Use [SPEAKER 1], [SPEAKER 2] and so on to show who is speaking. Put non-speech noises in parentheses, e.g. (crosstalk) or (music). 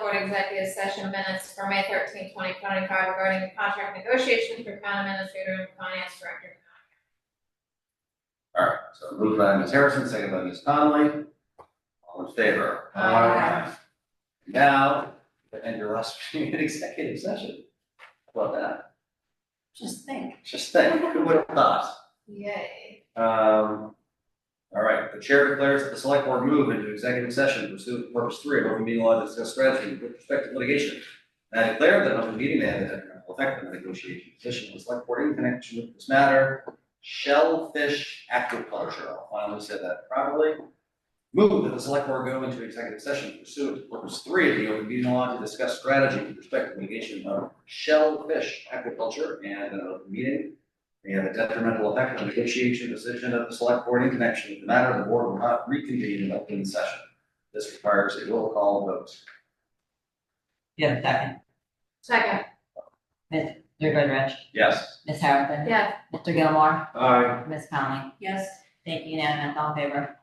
[SPEAKER 1] Board Executive Session Minutes for May 13, 2025, regarding contract negotiations for town administrator and finance director.
[SPEAKER 2] All right, so moved by Ms. Harrison, second by Ms. Conley. All in favor?
[SPEAKER 1] Aye.
[SPEAKER 2] Now, end your last (laughs) meeting in executive session. How about that?
[SPEAKER 3] Just think.
[SPEAKER 2] Just think, who would have thought?
[SPEAKER 1] Yay.
[SPEAKER 2] Um, all right, the chair declares that the select board move into executive session pursuant to purpose three of open meeting law to discuss strategy with respect to litigation. And I declare that an open meeting may have an detrimental effect on the negotiation position of the select board in connection with this matter. Shellfish aquaculture, I'll finally say that properly. Move that the select board go into executive session pursuant to purpose three of the open meeting law to discuss strategy with respect to litigation of shellfish aquaculture and an open meeting we have a detrimental effect on the negotiation position of the select board in connection with the matter, the board will not reconvene in open session. This requires a roll call vote.
[SPEAKER 3] Yeah, second.
[SPEAKER 1] Second,
[SPEAKER 3] Mr. Goodrich,
[SPEAKER 2] Yes.
[SPEAKER 3] Ms. Harrison,
[SPEAKER 1] yes.
[SPEAKER 3] Mr. Gilmore,
[SPEAKER 2] Aye.
[SPEAKER 3] Ms. Conley.
[SPEAKER 1] Yes.
[SPEAKER 3] Thank you unanimous, all in favor.